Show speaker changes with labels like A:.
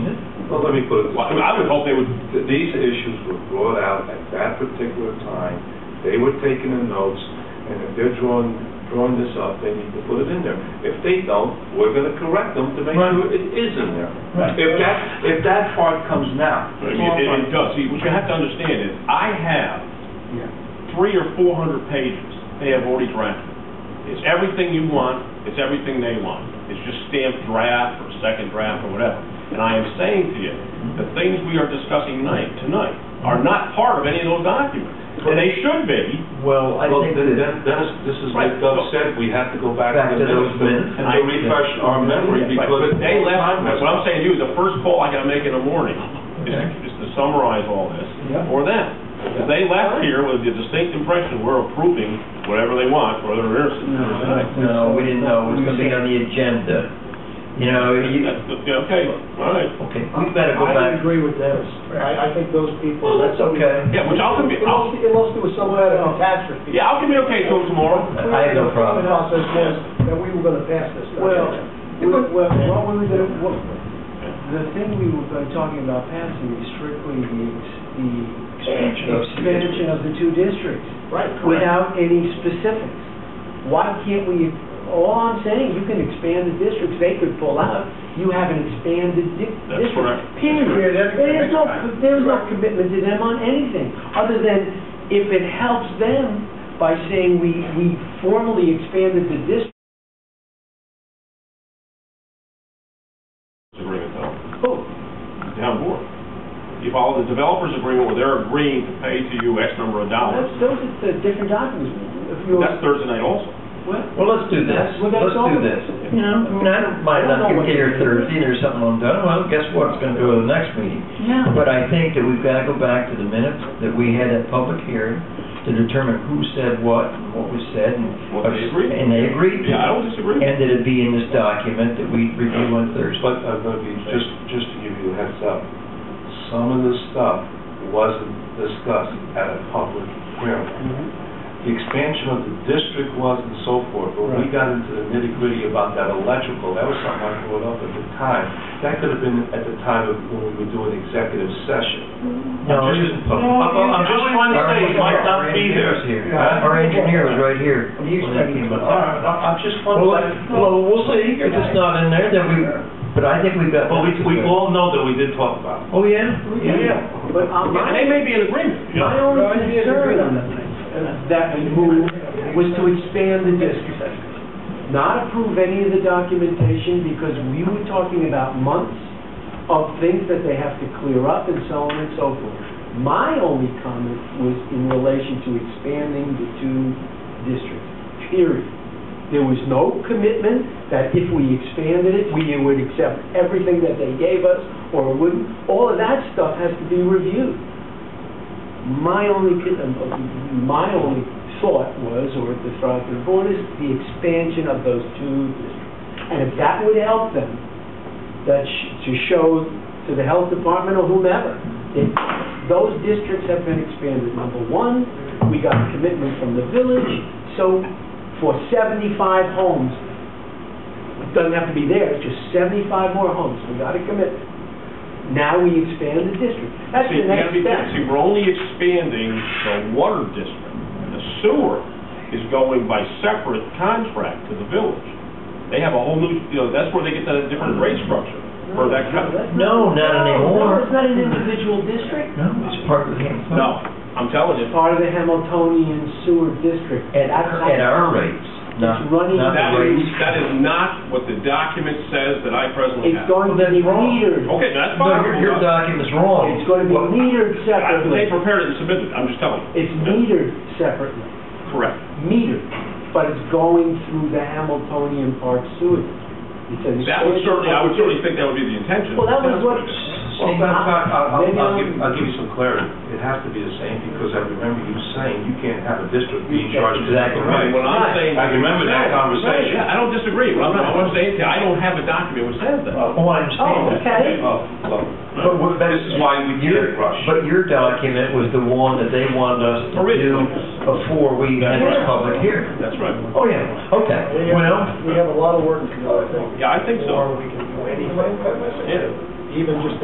A: Well, let me put it, this way. I mean, I would hope they would, th- these issues were brought out at that particular time, they were taking the notes, and if they're drawing, drawing this up, they need to put it in there. If they don't, we're gonna correct them to make
B: Right.
A: sure it is in there.
B: Right.
A: If that, if that part comes now.
C: I mean, It it does, see, what you have to understand is, I have three or four hundred pages they have already drafted. It's everything you want, it's everything they want. It's just stamped draft or second draft or whatever. And I am saying to you, the things we are discussing tonight, tonight, are not part of any of those documents. And they should be,
B: Well, I
A: Well,
B: think
A: then,
B: that,
A: then- Dennis, this is
C: Right.
A: like Doug said, we have to go back
B: Back
A: to the
B: to those
A: minutes and
B: minutes.
A: to refresh our memory,
C: Right,
A: because.
C: But they left, what I'm saying to you, is the first call I gotta make in the morning is,
B: Okay.
C: is to summarize all this
B: Yeah.
C: for them. If they left here with the distinct impression we're approving whatever they want, whether they're innocent or not.
B: no, we didn't know, it was gonna be on the agenda. You know, you,
C: That's- yeah, Okay, all right.
B: okay, we better go
D: I
B: back.
D: agree with Dennis. I, I think those people.
B: Well, that's okay.
C: Yeah, which I'll, commu- I'll,
D: Unless there was some kind of catastrophe.
C: yeah, I'll communicate to them tomorrow.
B: I have no problem.
D: The process was that we were gonna pass this.
E: Well, we- well, what we were gonna, what, the thing we were gonna- talking about passing is strictly the, ex-
B: Expansion
E: the
B: of two districts.
E: expansion of the two districts,
D: Right.
E: without any specifics. Why can't we, all I'm saying, you can expand the districts, they could pull out, you have an expanded di- district.
C: That's correct. That's
E: Period,
D: correct.
E: there is no, there is no commitment to them on anything, other than if it helps them by saying we, we formally expanded the district.
C: Agreement though,
E: Oh,
C: town board. You follow the developers agreement where they're agreeing to pay to you X number of dollars.
E: That's, those are the different documents. If you're,
C: That's Thursday night also.
E: what?
B: Well, let's do this,
E: Well, that's
B: let's do
E: all.
B: this. You know, I mean, I don't mind
E: I don't
B: not
E: know what-
B: getting here Thursday or something undone, well, guess what, it's gonna go to the next meeting.
E: Yeah.
B: But I think that we've gotta go back to the minutes that we had at public hearing to determine who said what, and what was said, and.
C: What they agreed.
B: And they agreed.
C: Yeah, I don't disagree.
B: And that it be in this document that we review on Thursday.
A: But I'm gonna be, just, just to give you a heads up, some of this stuff wasn't discussed at a public hearing. The expansion of the district was and so forth, but
D: Right.
A: we got into the nitty gritty about that electrical, that was something I brought up at the time. That could have been at the time of when we were doing executive session.
B: No,
A: I'm just- I'm- I'm- I'm just trying to say, it might not be there.
B: Our our engineer was right here.
E: You expect me to-
A: All right, I- I'm just
B: Well,
A: wondering.
B: well, we'll see, if it's not in there, then we, but I think we've got.
A: But we, we all know that we did talk about it.
B: Oh, yeah?
E: But uh,
C: Yeah, And they
E: my,
C: may be in agreement, you
E: my
C: know.
E: only concern on the thing, uh, that move was to expand the district. Not approve any of the documentation because we were talking about months of things that they have to clear up and so on and so forth. My only comment was in relation to expanding the two districts, period. There was no commitment that if we expanded it, we would accept everything that they gave us or wouldn't. All of that stuff has to be reviewed. My only, con- uh, my only thought was, or the thought of the board is, the expansion of those two districts. And if that would help them, that, sh- to show to the health department or whomever, that those districts have been expanded. Number one, we got a commitment from the village, so for 75 homes, it doesn't have to be there, it's just 75 more homes, we got a commitment. Now we expand the district. That's
C: See,
E: the
C: you gotta
E: next
C: be
E: step.
C: careful. See, we're only expanding the water district. The sewer is going by separate contract to the village. They have a whole new, you know, that's where they get that different rate structure for that contract.
B: No, not anymore.
E: No, it's not an individual district.
B: No, it's part of the game.
C: No, I'm telling you,
E: It's part of the Hamiltonian Sewer District.
B: At, at our rates, not,
E: It's running-
B: not
C: that
B: the
C: is,
B: rates.
C: that is not what the document says that I presently
E: It's
C: have.
E: going to
B: Well,
E: be
B: that's wrong.
E: metered.
C: Okay, that's
B: No, your,
C: fine.
B: your document's wrong.
E: It's going to be
B: Well,
E: metered
C: I- They
E: separately.
C: prepared it and submitted it, I'm just telling you.
E: It's metered separately,
C: Correct.
E: metered, but it's going through the Hamiltonian Park Sewer. District. It's an
C: That would
E: expansion
C: certainly,
E: of
C: I
E: the
C: would certainly
E: district.
C: think that would be the intention.
E: Well, that was
C: That's
E: what-
C: it is.
A: Well, but I- I- I'll,
E: Maybe
A: I'll
E: I'm-
A: give, I'll give you some clarity. It has to be the same, because I remember you saying you can't have a district being charged with that
B: Exactly right.
A: rate.
C: What I'm saying.
A: I remember that conversation.
C: Yeah, I don't disagree. What I'm, what I'm saying, is I don't have a document which says that.
B: Oh, I understand.
E: Oh,
B: that.
E: okay.
A: Oh, well,
B: But what- but-
A: This is why we
B: Your-
A: can't rush.
B: But your document was the one that they wanted us to do
C: Originally.
B: before we had this public hearing.
C: That's right.
B: Oh, yeah, okay, well,
D: We have a lot of work to do, I think.
C: Yeah, I think so.
D: Before we can do anything,
C: Yeah.
D: even just